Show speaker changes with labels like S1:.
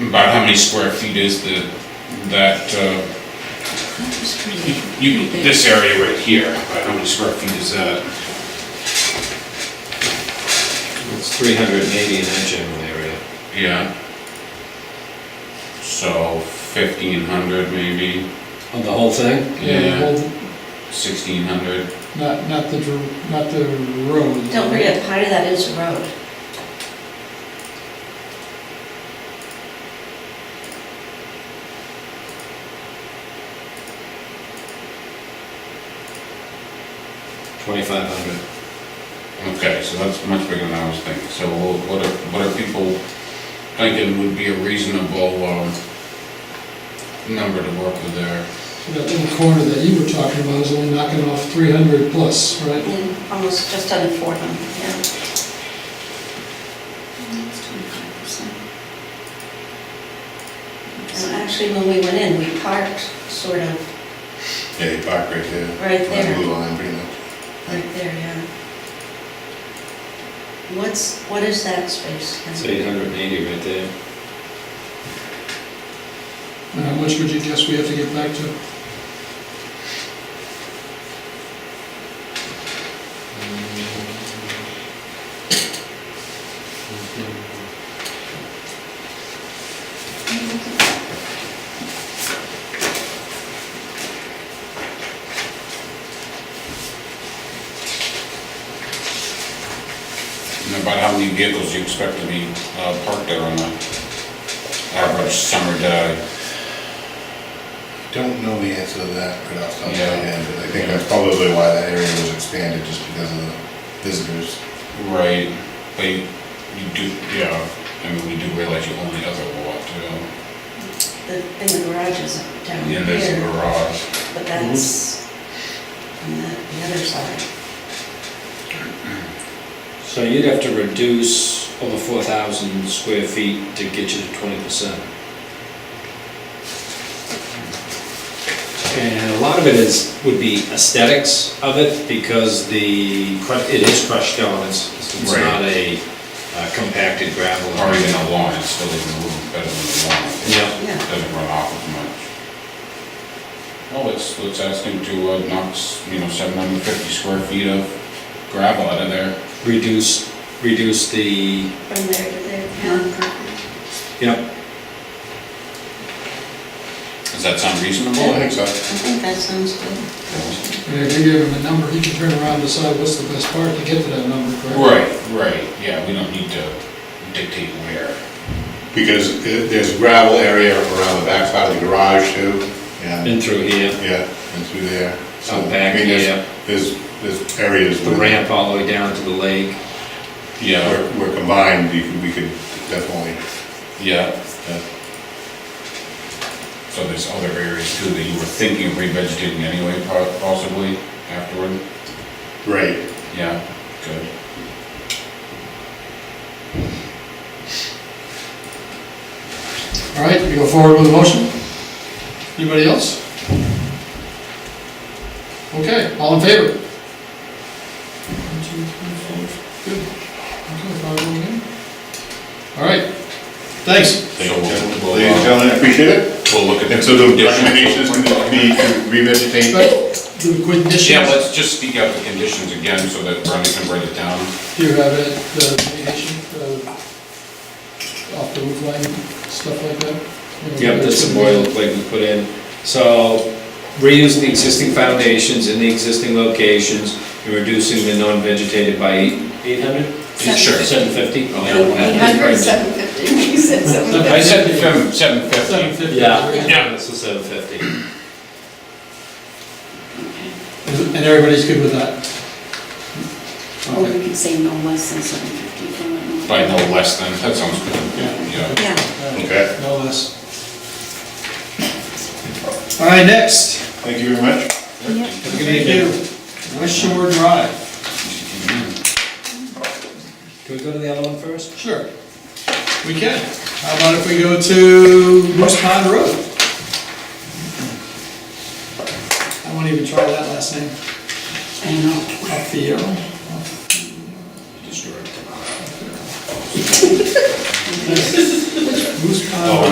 S1: About how many square feet is the, that, uh,
S2: It's
S1: you-
S2: pretty-
S1: you,
S2: pretty big.
S1: this area right here, about how many square feet is that?
S3: It's 380 in that general area.
S1: Yeah. So fifteen hundred maybe,
S3: On the whole thing?
S1: Yeah.
S4: well,
S1: sixteen hundred,
S4: Not, not the, dr- not the road.
S2: Don't forget, part of that is a road.
S3: Twenty-five hundred.
S1: okay, so that's much bigger than I was thinking, so what are, what are people thinking would be a reasonable, um, number to work with there?
S4: So That little corner that you were talking about is only knocking off three hundred plus, right?
S2: Mm, Almost just under four hundred, yeah. Mm, That's twenty-five percent. And actually, when we went in, we parked sort of
S5: Yeah, you park right there.
S2: Right
S5: On the
S2: there.
S5: blue line, pretty much.
S2: right there, yeah. What's, what is that space? Ken?
S3: It's eight hundred and eighty right there.
S4: And how much would you guess we have to get back to?
S1: And about how many vehicles you expect to be uh, parked there on an average summer day?
S5: Don't know the answer to that right off the top of my
S1: Yeah.
S5: head, but I think
S1: Yeah.
S5: that's probably why that area was expanded, just because of the visitors.
S1: Right, but you you do, yeah, I mean, we do realize you own the other lot too.
S2: The, in the garage is down
S1: And there's a
S2: here,
S1: garage.
S2: but that's on the, the other side.
S3: So you'd have to reduce over four thousand square feet to get you to twenty percent. And a lot of it is, would be aesthetics of it, because the, cru- it is crushed stone, it's, it's
S1: Right.
S3: not a uh, compacted gravel.
S1: Or even a lawn, it's still even a little better than the lawn.
S3: Yeah.
S2: Yeah.
S1: Doesn't run off as much. Well, let's, let's ask him to uh, knock, s- you know, 750 square feet of gravel out of there.
S3: Reduce, reduce the,
S2: From there to there, yeah.
S3: yep,
S1: Does that sound
S5: Well, I
S1: reasonable?
S5: think so.
S2: I think that sounds good.
S4: And if you give him a number, he can turn around and decide what's the best part to get to that number, correct?
S1: Right, right, yeah, we don't need to dictate where.
S5: Because it- there's gravel area around the back side of the garage too, and,
S3: in through here.
S5: yeah, and through there. So,
S3: Out back,
S5: I mean, there's-
S3: yeah.
S5: There's, there's areas.
S3: the
S5: where-
S3: ramp all the way down to the lake.
S5: Where,
S1: Yeah,
S5: where combined, you could- we could definitely,
S1: yeah,
S5: uh,
S1: so there's other areas too that you were thinking of revegetating anyway po- possibly afterward?
S5: right,
S1: Yeah, good.
S4: All right, we go forward with the motion? Anybody else? Okay, all in favor? One, two, three, four. Good. Okay, five, one, again. All right, thanks.
S1: So we'll-
S5: Ladies and
S1: we'll, uh,
S5: gentlemen, appreciate it.
S1: we'll look at.
S5: And so the
S1: conditions.
S5: recommendation is going to be to revegetate.
S4: But the conditions,
S1: Yeah, let's just speak out the conditions again so that Brenda can write it down.
S4: do you have it, uh, the mitigation, uh, off the roof line, stuff like that?
S3: Yep, that's the boilerplate we put in. So reusing the existing foundations in the existing locations and reducing the non-vegetated by eight hundred?
S2: Sure.
S3: Seven fifty? Oh,
S2: Eight hundred, seven fifty, you said seven fifty.
S1: I said seven, seven
S4: Seven
S1: fifty.
S4: fifty.
S3: Yeah,
S1: Yeah.
S3: yeah, so seven fifty.
S4: And everybody's good with that?
S6: Or we could say no less than seven fifty.
S1: By no less than, that sounds good, yeah.
S2: Yeah.
S5: Okay,
S4: No less. All right, next.
S5: thank you very much.
S4: Good evening. West Shore Drive.
S3: Can we go to the other one first?
S4: Sure. We can. How about if we go to Moose Pond Road? I won't even try that last name.
S6: I know.
S4: Alfiero. Moose Pond.